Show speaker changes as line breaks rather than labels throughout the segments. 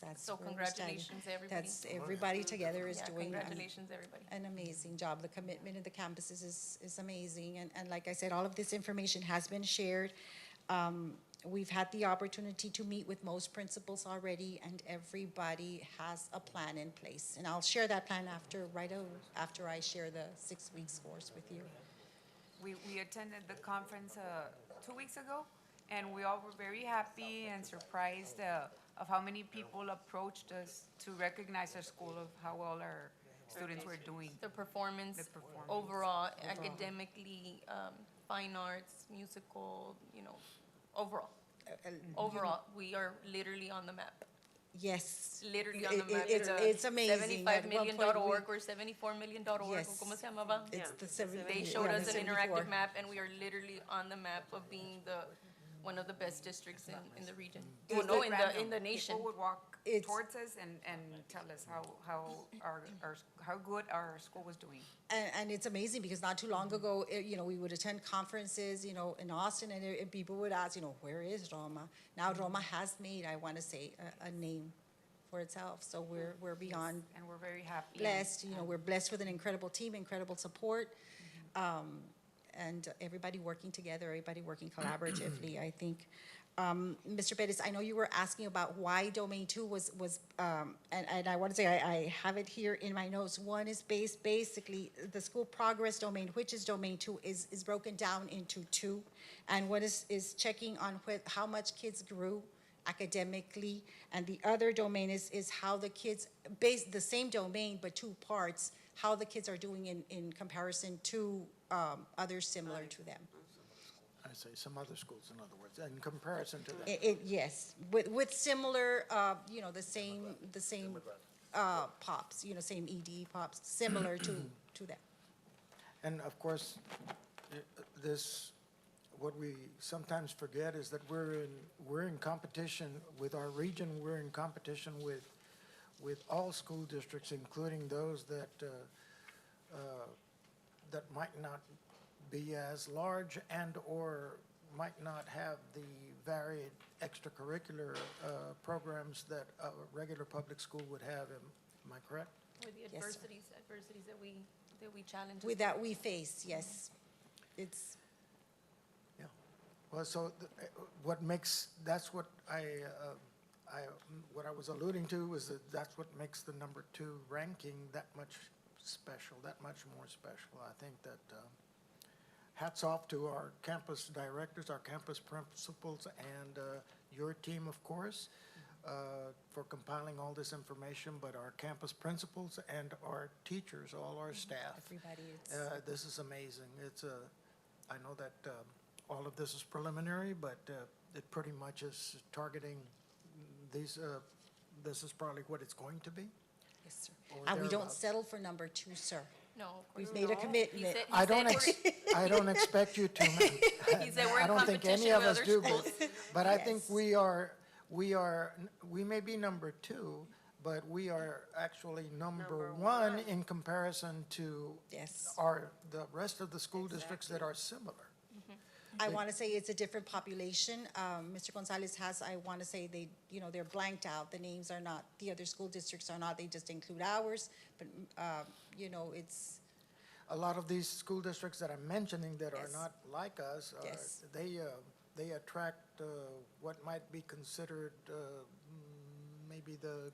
that's
So
where we're starting.
congratulations, everybody.
That's, everybody together is
Yeah,
doing an-
Congratulations, everybody.
an amazing job. The commitment of the campuses is, is amazing. And, and like I said, all of this information has been shared. Um, we've had the opportunity to meet with most principals already and everybody has a plan in place. And I'll share that plan after, right o- after I share the six weeks course with you.
We, we attended the conference, uh, two weeks ago, and we all were very happy and surprised, uh, of how many people approached us to recognize our school of how well our students were doing.
The performance,
The performance.
overall, academically, um, fine arts, musical, you know, overall.
Mm-hmm.
Overall, we are literally on the map,
Yes.
literally on the
It- it-
map.
it's-
a
it's amazing. At
Seventy-five
one
million
point
dot
we-
org or seventy-four million dot org,
Yes.
¿cómo se llamaba?
It's the seven.
They
yeah,
showed
the
us an
74.
interactive map and we are literally on the map of being the, one of the best districts in, in the region. Well,
Just
no,
like
in the,
random.
in the nation.
People would walk
It's-
towards us and, and tell us how, how our, our, how good our school was doing.
And, and it's amazing because not too long ago, eh, you know, we would attend conferences, you know, in Austin, and, eh, and people would ask, you know, where is Roma? Now Roma has made, I want to say, a, a name for itself. So we're we're beyond
And we're very happy.
blessed. You know, we're blessed with an incredible team, incredible support, um, and everybody working together, everybody working collaboratively. I think, um, Mr. Pettis, I know you were asking about why domain two was was, um, and, and I want to say I, I have it here in my notes. One is based basically the school progress domain, which is domain two, is is broken down into two, and what is is checking on wh- how much kids grew academically, and the other domain is, is how the kids, base, the same domain, but two parts, how the kids are doing in, in comparison to, um, others similar to them.
I say, some other schools, in other words, in comparison to that.
It, it, yes, with, with similar, uh, you know, the same, the same, uh, pops, you know, same ED pops, similar to, to them.
And of course, i- this, what we sometimes forget is that we're in, we're in competition with our region, we're in competition with, with all school districts, including those that, uh, uh, that might not be as large and/or might not have the varied extracurricular uh, programs that a regular public school would have. Am am I correct?
With the
sir.
adversities, adversities that we, that we challenge.
With that, we face, yes. It's,
Yeah, well, so th- uh, what makes, that's what I, uh, I, what I was alluding to was that that's what makes the number two ranking that much special, that much more special. I think that uh, hats off to our campus directors, our campus principals, and uh, your team, of course, uh, for compiling all this information, but our campus principals and our teachers, all our staff.
everybody, it's,
Uh, This is amazing. It's a, I know that um, all of this is preliminary, but uh, it pretty much is targeting these, uh, this is probably what it's going to be.
yes, sir.
or
And we don't
thereabouts.
settle for number two, sir.
No, of course.
We've made a
not. He
commitment.
said- he
I
said
don't,
we're-
ex- I don't expect you to. ma'am.
He said we're in
I don't think any
competition
of
with
us
other
do, but-
schools.
But I think
Yes.
we are, we are, we may be number two, but we are actually number one in comparison to
Yes.
our, the rest of the school districts that are similar.
I want to say it's a different population. Um, Mr. Gonzalez has, I want to say they, you know, they're blanked out. The names are not, the other school districts are not, they just include ours. But, um, you know, it's,
a lot of these school districts that I'm mentioning that are
Yes.
not like us, are-
Yes.
they, uh, they attract uh, what might be considered uh, mm, maybe the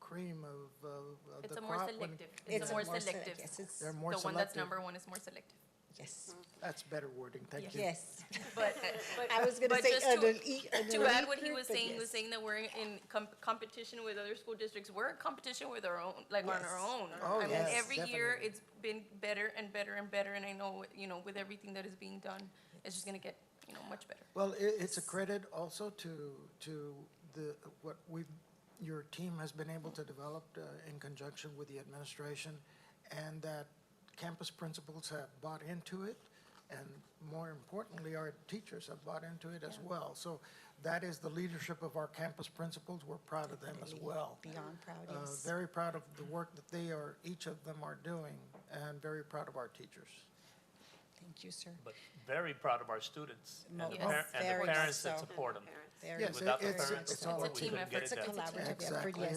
cream of, uh, of the crop.
It's a more
when-
selective.
It's a
It's a more
more select-
selective.
yes, it's-
They're
The
more
one that's
selective.
number one is more selective.
yes,
That's better wording, thank you.
yes.
But, but.
I was gonna
Mm-hmm. but
say
just
under
to-
E- under
To add what he
Laker,
was
but
saying, he was
yes.
saying that we're in com- competition with other school districts. We're in competition with our own, like on our
Yes.
own.
Oh,
I mean,
yes,
Every year,
definitely.
it's been better and better and better, and I know, you know, with everything that is being done, it's just gonna get, you know, much better.
Well, i it's a credit also to, to the, what we've, your team has been able to develop uh, in conjunction with the administration, and that campus principals have bought into it, and more importantly, our teachers have bought into it as well. So that is the leadership of our campus principals. We're proud of them as well.
Beyond proud,
Uh,
yes.
Very proud of the work that they are, each of them are doing, and very proud of our teachers.
Thank you, sir.
but very proud of our students and the
Yes.
par- and
oh, Very
the parents
so.
that support them.
Yes,
Without the
it's-
parents,
it's all
we
It's a
couldn't
team
get
effort.
it
It's a
done.
collaborative effort,
Exactly.
yes.